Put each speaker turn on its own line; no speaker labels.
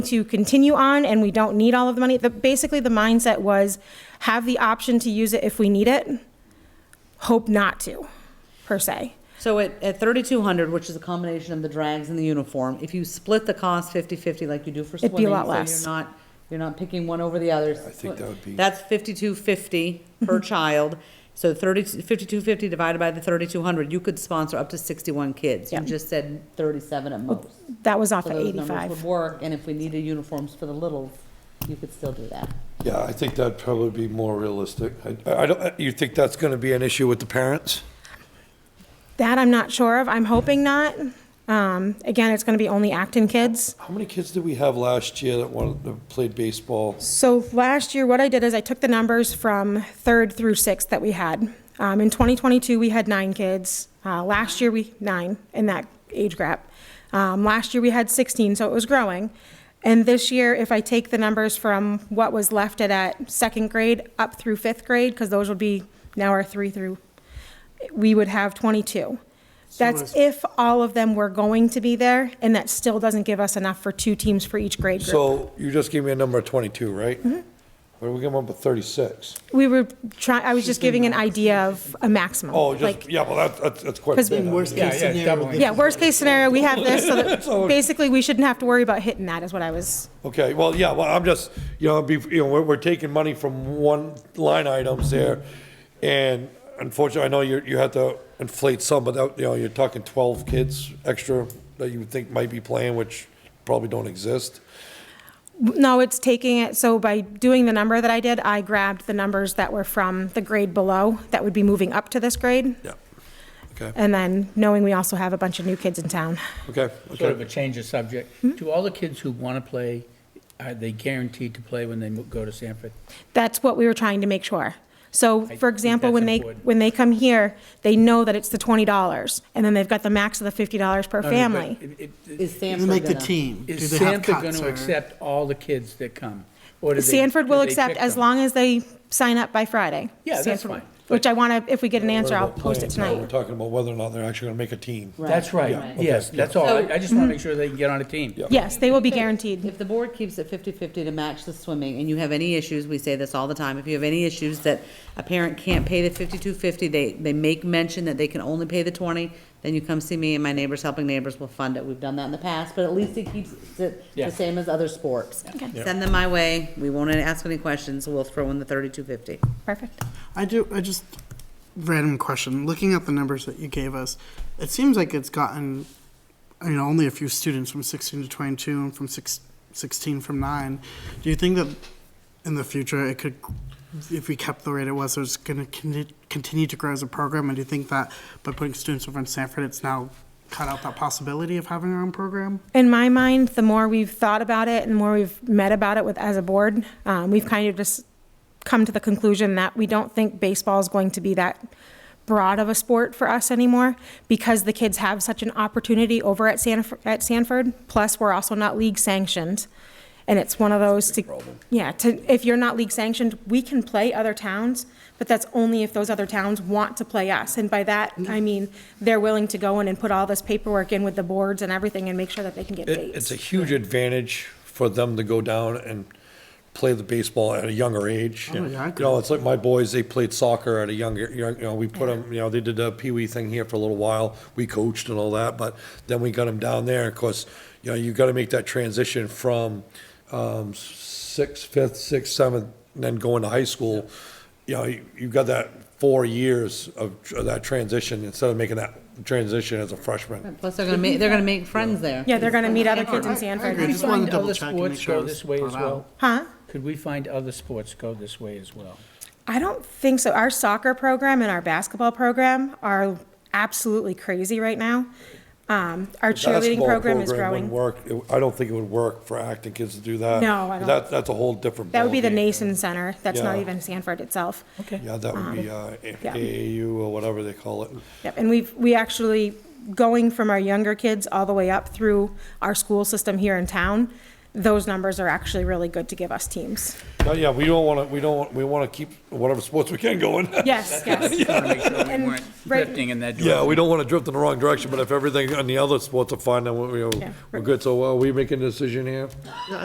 to continue on and we don't need all of the money. The, basically, the mindset was have the option to use it if we need it, hope not to, per se.
So at, at thirty-two hundred, which is a combination of the drags and the uniform, if you split the cost fifty-fifty like you do for
It'd
swimming.
be a lot
so
less.
You're not, you're not picking one over the other. I
think that would be-
That's fifty-two fifty per child. So thirty, fifty-two fifty divided by the thirty-two hundred, you could sponsor up to sixty-one kids. You
Yeah.
just said thirty-seven at most.
That was off
So
at
those numbers would
85.
work, and if we needed uniforms for the littles, you could still do that.
Yeah, I think that'd probably be more realistic. I, I don't, uh, you think that's gonna be an issue with the parents?
That I'm not sure of. I'm hoping not. Um, again, it's going to be only Acton kids.
How many kids did we have last year that wanted, that played baseball?
So last year, what I did is I took the numbers from third through sixth that we had. Um, in 2022, we had nine kids. Uh, last year, we nine in that age gap. Um, last year, we had 16, so it was growing. And this year, if I take the numbers from what was left at, at second grade up through fifth grade, because those would be now our three through, we would have 22. That's if all of them were going to be there, and that still doesn't give us enough for two teams for each grade group.
So you just gave me a number of twenty-two, right?
Mm-hmm.
What do we give them up at thirty-six?
We were trying, I was just giving an idea of a maximum.
Oh,
Like,
just, yeah, well, that's, that's, that's quite a
'Cause
bit.
in
worst
Yeah,
case
yeah,
scenario,
doubling.
this
yeah, worst case scenario, we have this, so
So-
that, basically, we shouldn't have to worry about hitting that, is what I was,
Okay, well, yeah, well, I'm just, you know, be, you know, we're, we're taking money from one line items there. And unfortunately, I know you, you have to inflate some, but that, you know, you're talking twelve kids extra that you would think might be playing, which probably don't exist.
no, it's taking it, so by doing the number that I did, I grabbed the numbers that were from the grade below, that would be moving up to this grade,
Yeah. Okay,
and then knowing we also have a bunch of new kids in town.
okay,
Sort of
okay.
a change of subject.
Hmm?
Do all the kids who want to play, are they guaranteed to play when they mo- go to Sanford?
That's what we were trying to make sure. So,
think
for example, when
that's
they,
important.
when they come here, they know that it's the twenty dollars, and then they've got the max of the fifty dollars per
No,
family.
but it- it-
Is
You
Sanford
make the
gonna-
team. Do
Is
they have
Sanford going
cuts
to
or-
accept all the kids that come? Or do they-
Sanford
do
will
they
accept
pick
as
them?
long as they sign up by Friday.
Yeah, that's
Sanford-
fine.
Which I want to, if we get an answer, I'll
We're about
post it
playing, We're
tonight.
talking about whether or not they're actually gonna make a team.
That's right,
Right.
yes,
Okay,
that's all. I I just
Hmm?
want to make sure they can get on a team.
Yeah.
Yes, they will be
If
guaranteed.
the board keeps it 50-50 to match the swimming, and you have any issues, we say this all the time, if you have any issues that a parent can't pay the 52.50, they, they make mention that they can only pay the 20, then you come see me, and my Neighbors Helping Neighbors will fund it. We've done that in the past, but at least it keeps it
Yeah.
the same as other sports. Send them my way, we won't ask any questions, we'll throw in the 32.50.
Perfect.
I do. I just random question. Looking at the numbers that you gave us, it seems like it's gotten. I mean, only a few students from 16 to 22, and from six, 16 from nine. Do you think that in the future it could, if we kept the rate it was, it's going to con- continue to grow as a program? And do you think that by putting students over in Sanford, it's now cut out that possibility of having our own program?
In my mind, the more we've thought about it and the more we've met about it with, as a board, um, we've kind of just come to the conclusion that we don't think baseball is going to be that broad of a sport for us anymore because the kids have such an opportunity over at Sanford, at Sanford. Plus, we're also not league sanctioned. And it's one of those to, yeah, to, if you're not league sanctioned, we can play other towns, but that's only if those other towns want to play us. And by that,
Mm-hmm.
I mean, they're willing to go in and put all this paperwork in with the boards and everything and make sure that they can get
It, it's
dates.
a huge advantage for them to go down and play the baseball at a younger age.
Oh, yeah, I
You know, it's like my boys, they played soccer at a younger, you know, you know, we put them, you know, they did the pee wee thing here for a little while. We coached and all that, but then we got them down there. Of course, you know, you gotta make that transition from, um, sixth, fifth, sixth, seventh, and then going to high school. You know, you, you've got that four years of, of that transition instead of making that transition as a freshman.
Plus, they're gonna make, they're gonna make friends there.
Yeah, they're gonna meet other kids in
agree.
Sanford.
Just wanted to
Find
double
other
check and make
sports
sure it
go
was
this way as
thought out.
well?
Huh?
Could we find other sports go this way as well?
I don't think so. Our soccer program and our basketball program are absolutely crazy right now. Um, our cheerleading
basketball
program is
wouldn't
growing.
Work, it- I don't think it would work for acting kids to do that.
No, I don't.
That, that's a whole different.
That would be the
ballgame.
Nason Center. That's not
Yeah.
even Sanford itself.
Okay.
Yeah, that would be, uh,
yeah.
AAU or whatever they call it.
Yep, and we've, we actually, going from our younger kids all the way up through our school system here in town, those numbers are actually really good to give us teams.
Yeah, Yeah, we don't wanna, we don't, we wanna keep whatever sports we can going.
Yes, yes.
Want to make sure we
And
weren't
right-
drifting in that direction.
Yeah, we don't wanna drift in the wrong direction, but if everything on the other sports are fine, then we,
Yeah.
we're good. So, uh, are we making a decision here?